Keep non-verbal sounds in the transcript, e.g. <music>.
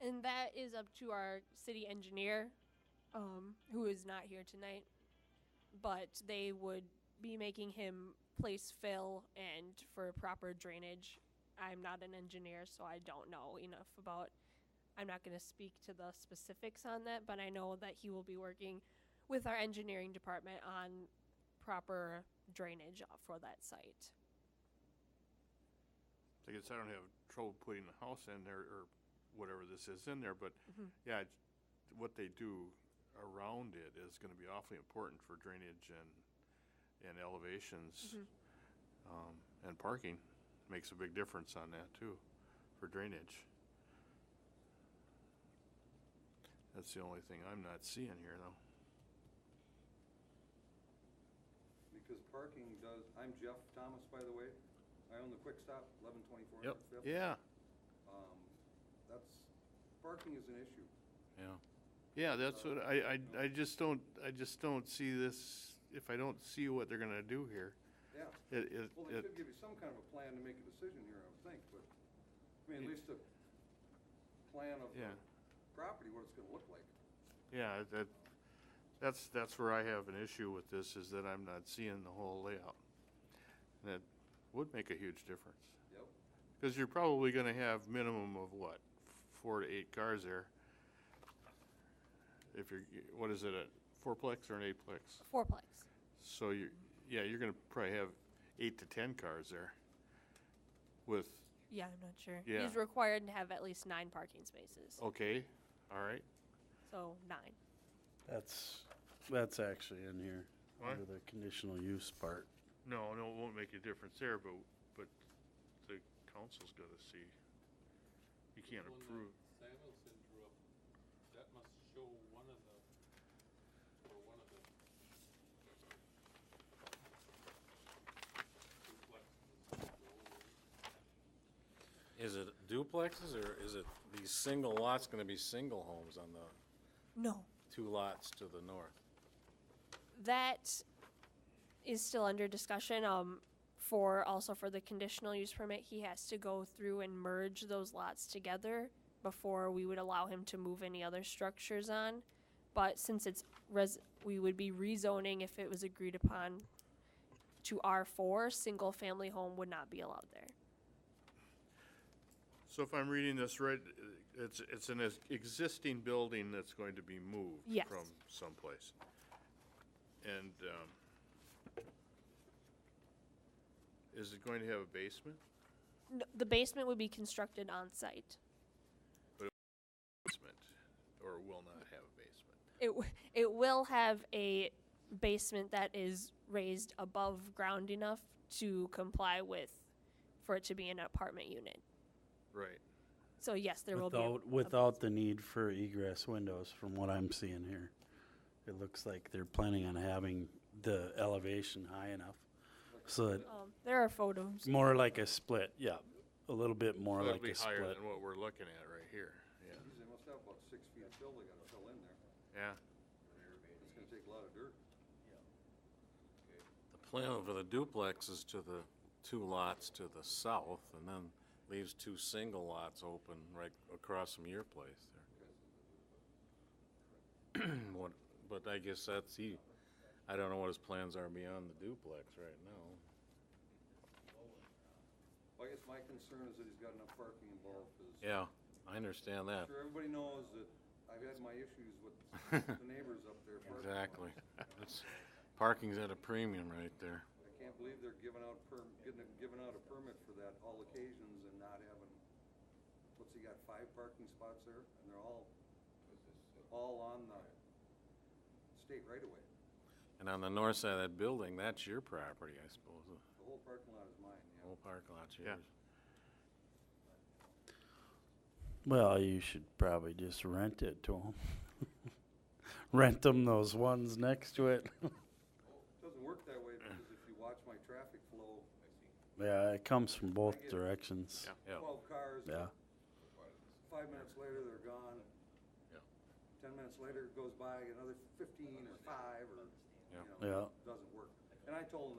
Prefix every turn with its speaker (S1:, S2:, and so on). S1: and that is up to our city engineer, um, who is not here tonight. But they would be making him place fill and for proper drainage. I'm not an engineer, so I don't know enough about. I'm not going to speak to the specifics on that, but I know that he will be working with our engineering department on proper drainage for that site.
S2: I guess I don't have trouble putting the house in there or whatever this is in there, but yeah, it's- what they do around it is going to be awfully important for drainage and, and elevations um, and parking. Makes a big difference on that too, for drainage. That's the only thing I'm not seeing here though.
S3: Because parking does, I'm Jeff Thomas, by the way. I own the Quick Stop, 1124
S2: Yep.
S3: Fifth.
S2: Yeah,
S3: Um, That's, parking is an issue.
S2: yeah. Yeah, that's what, I, I, I just don't, I just don't see this, if I don't see what they're going to do here.
S3: Yeah.
S2: It, it,
S3: Well, they should
S2: it,
S3: give you some kind of a plan to make a decision here, I would think, but, I mean, at least a plan of
S2: Yeah.
S3: the property, what it's going to look like.
S2: yeah, that, that's, that's where I have an issue with this, is that I'm not seeing the whole layout. And that would make a huge difference,
S3: Yep.
S2: because you're probably gonna have minimum of what, four to eight cars there? If you're, what is it, a fourplex or an eightplex?
S1: Fourplex.
S2: So you, yeah, you're gonna probably have eight to 10 cars there with,
S1: Yeah, I'm not sure.
S2: Yeah. Oh.
S1: He's required to have at least nine parking spaces.
S2: okay, all right,
S1: So nine.
S4: That's, that's actually in here,
S2: What?
S4: under the conditional use part.
S2: No, no, it won't make a difference there, but, but the council's gotta see. You can't
S5: Well, the
S2: approve.
S5: Samuelson drew up, that must show one of the, or one of the. duplexes.
S6: Is it duplexes or is it these single lots going to be single homes on the
S1: No.
S6: two lots to the north?
S1: That is still under discussion. Um, for also for the conditional use permit, he has to go through and merge those lots together before we would allow him to move any other structures on. But since it's res, we would be rezoning if it was agreed upon to R four, single family home would not be allowed there.
S2: So if I'm reading this right, it's, it's an existing building that's going to be moved
S1: Yes.
S2: from someplace. And, um, is it going to have a basement?
S1: No, the basement would be constructed on site.
S2: Basement, or will not have a basement?
S1: It w- it will have a basement that is raised above ground enough to comply with for it to be an apartment unit.
S2: Right.
S1: So yes, there will
S4: Without,
S1: be a-
S4: without the need for egress windows, from what I'm seeing here. It looks like they're planning on having the elevation high enough, so that,
S1: um, there are photos.
S4: more like a split, yeah, a little bit more
S2: It'll
S4: like
S2: be
S4: a
S2: higher
S4: split.
S2: than what we're looking at right here, yeah,
S3: Geez, They must have about six feet of fill they got to fill in there.
S2: yeah.
S3: It's going to take a lot of dirt.
S6: The plan for the duplex is to the two lots to the south and then leaves two single lots open right across from your place <clears throat> there. What, but I guess that's he, I don't know what his plans are beyond the duplex right now.
S3: Well, I guess my concern is that he's got enough parking involved, 'cause
S6: Yeah, I understand that.
S3: sure everybody knows that I've had my issues
S2: <laughs>
S3: with the neighbors up there. parking.
S6: Exactly. That's, parking's at a premium right there.
S3: I can't believe they're giving out perm, getting, giving out a permit for that all occasions and not having, what's he got, five parking spots there? And they're all, all on the state right away.
S6: And on the north side of that building, that's your property, I suppose. The
S3: The whole parking lot is mine, yeah.
S6: whole parking lot's
S2: Yeah.
S6: yours.
S4: Well, you should probably just rent it to them. <laughs> Rent them those ones next to it. <laughs>
S3: Doesn't work that way because if you watch my traffic flow,
S4: Yeah, it comes from
S3: I
S4: both
S3: get it.
S4: directions.
S6: Yeah,
S3: twelve cars,
S4: Yeah.
S3: five minutes later, they're gone.
S6: Yeah.
S3: Ten minutes later, it goes by another fifteen or five or, you
S6: Yeah.
S3: know.
S4: Yeah.
S3: Doesn't work. And I told them